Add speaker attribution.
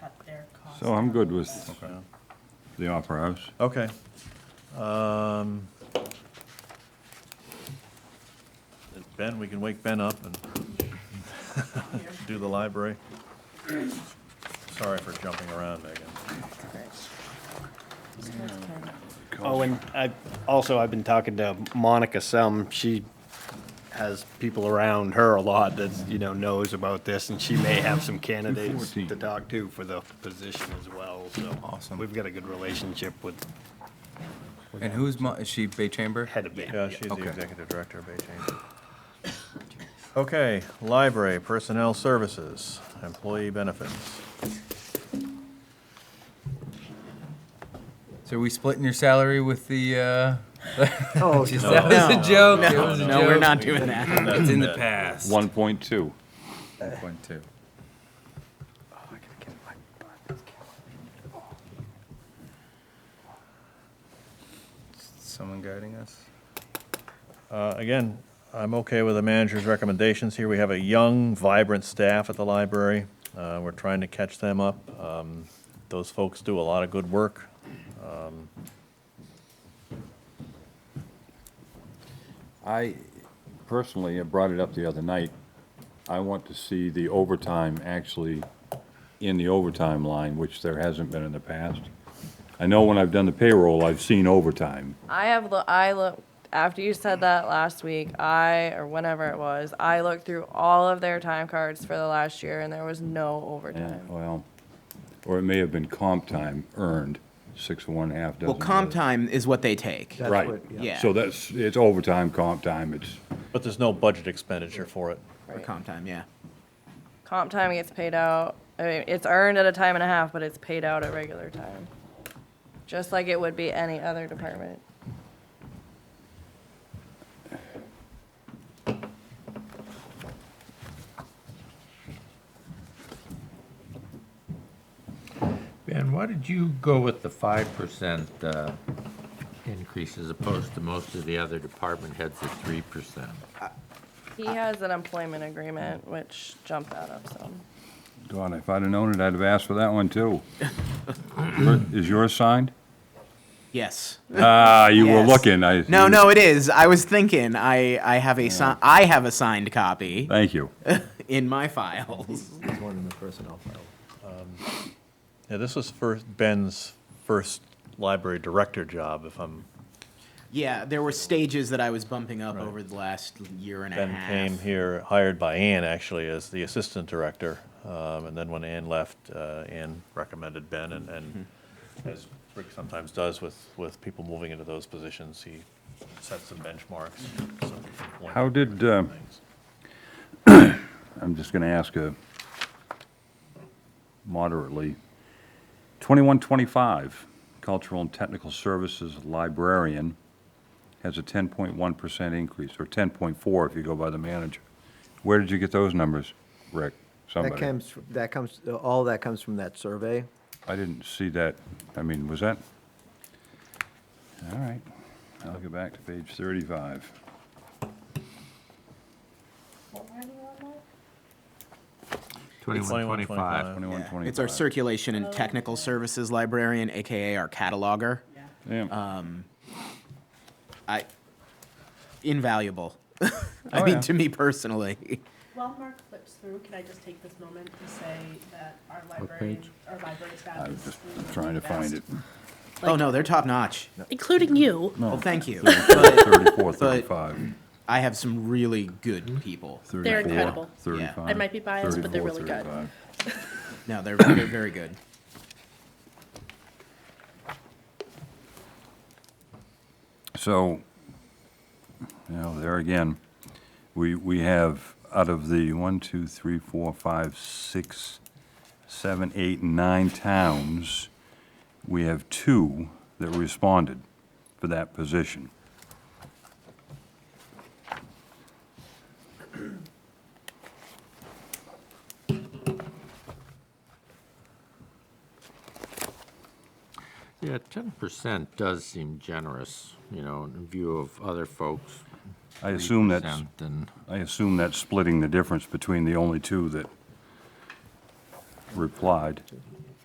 Speaker 1: cost.
Speaker 2: So I'm good with the Opera House.
Speaker 3: Okay. Um, Ben, we can wake Ben up and do the library. Sorry for jumping around, Megan.
Speaker 4: Oh, and I, also, I've been talking to Monica some, she has people around her a lot that, you know, knows about this, and she may have some candidates
Speaker 2: 214.
Speaker 4: to talk to for the position as well, so.
Speaker 5: Awesome.
Speaker 4: We've got a good relationship with
Speaker 5: And who's, Mo- is she Bay Chamber?
Speaker 4: head of Bay.
Speaker 3: Yeah, she's the
Speaker 5: Okay.
Speaker 3: executive director of Bay Chamber. Okay, library, personnel services, employee benefits.
Speaker 5: So are we splitting your salary with the, uh? That
Speaker 6: Oh,
Speaker 5: was
Speaker 6: no.
Speaker 5: a joke. It was a
Speaker 6: No, we're
Speaker 5: joke.
Speaker 6: not doing that.
Speaker 5: It's in the
Speaker 2: 1.2.
Speaker 5: past. One point two. Someone guiding us?
Speaker 3: Uh, Again, I'm okay with the manager's recommendations here. We have a young, vibrant staff at the library. Uh, We're trying to catch them up. Um, Those folks do a lot of good work.
Speaker 2: I personally, I brought it up the other night, I want to see the overtime actually in the overtime line, which there hasn't been in the past. I know when I've done the payroll, I've seen overtime.
Speaker 7: I have, lo- I look, after you said that last week, I, or whenever it was, I looked through all of their time cards for the last year and there was no
Speaker 2: Yeah,
Speaker 7: overtime.
Speaker 2: well, or it may have been comp time earned, six and one half dozen.
Speaker 6: Well, comp
Speaker 2: days.
Speaker 6: time is what they take.
Speaker 8: That's
Speaker 2: Right.
Speaker 8: what- yeah.
Speaker 6: Yeah.
Speaker 2: So that's, it's overtime, comp time, it's,
Speaker 3: But there's no budget expenditure for it.
Speaker 6: For comp time, yeah.
Speaker 7: Comp time gets paid out, I mean, it's earned at a time and a half, but it's paid out at regular time. Just like it would be any other department.
Speaker 9: Ben, why did you go with the five percent uh, increase as opposed to most of the other department heads at three percent?
Speaker 7: He has an employment agreement, which jumped out of some.
Speaker 2: God, if I'd have known it, I'd have asked for that one too. Your- Is yours signed?
Speaker 6: Yes.
Speaker 2: Ah, you were
Speaker 6: Yes.
Speaker 2: looking, I.
Speaker 6: No, no, it is. I was thinking. I I have a si- I have a signed copy
Speaker 2: Thank you.
Speaker 6: in my files.
Speaker 8: It's one in the personnel file.
Speaker 3: Yeah, this was first, Ben's first library director job, if I'm,
Speaker 6: Yeah, there were stages that I was bumping up over the last year and a
Speaker 3: Ben
Speaker 6: half.
Speaker 3: came here, hired by Ann actually as the assistant director. Um, And then when Ann left, uh, Ann recommended Ben and, and as Rick sometimes does with, with people moving into those positions, he sets some benchmarks. some point-
Speaker 2: How did, uh, I'm just gonna ask a moderately, twenty-one twenty-five, cultural and technical services librarian has a ten point one percent increase, or ten point four if you go by the manager. Where did you get those numbers, Rick?
Speaker 8: That
Speaker 2: Somebody?
Speaker 8: comes, that comes, all that comes from that survey.
Speaker 2: I didn't see that, I mean, was that? All right, I'll go back to page thirty-five.
Speaker 9: Twenty-one,
Speaker 3: 25.
Speaker 9: twenty-five.
Speaker 2: Twenty-one
Speaker 6: Yeah.
Speaker 2: twenty-five.
Speaker 6: It's our circulation and technical services librarian, aka our cataloger. Uh,
Speaker 2: Yeah,
Speaker 6: I invaluable. I
Speaker 2: Oh,
Speaker 6: mean,
Speaker 2: yeah.
Speaker 6: to me personally.
Speaker 1: While Mark flips through, can I just take this moment to say that our library,
Speaker 8: page?
Speaker 1: our library staff
Speaker 2: I
Speaker 1: is.
Speaker 2: was just
Speaker 1: really
Speaker 2: trying to
Speaker 1: the
Speaker 2: find
Speaker 1: best.
Speaker 2: it.
Speaker 6: oh no, they're top notch.
Speaker 1: Including you.
Speaker 6: Well, thank you. but
Speaker 2: 34, 35,
Speaker 6: I have some really good people.
Speaker 2: 34,
Speaker 1: incredible.
Speaker 2: 35,
Speaker 1: I might be biased, but they're
Speaker 2: 34,
Speaker 1: really good.
Speaker 2: 35.
Speaker 6: No, they're they're very good.
Speaker 2: So, you know, there again, we, we have, out of the one, two, three, four, five, six, seven, eight, and nine towns, we have two that responded for that position.
Speaker 9: Yeah, ten percent does seem generous, you know, in view of other folks.
Speaker 2: I assume that's,
Speaker 9: 3% And,
Speaker 2: I assume that's splitting the difference between the only two that replied.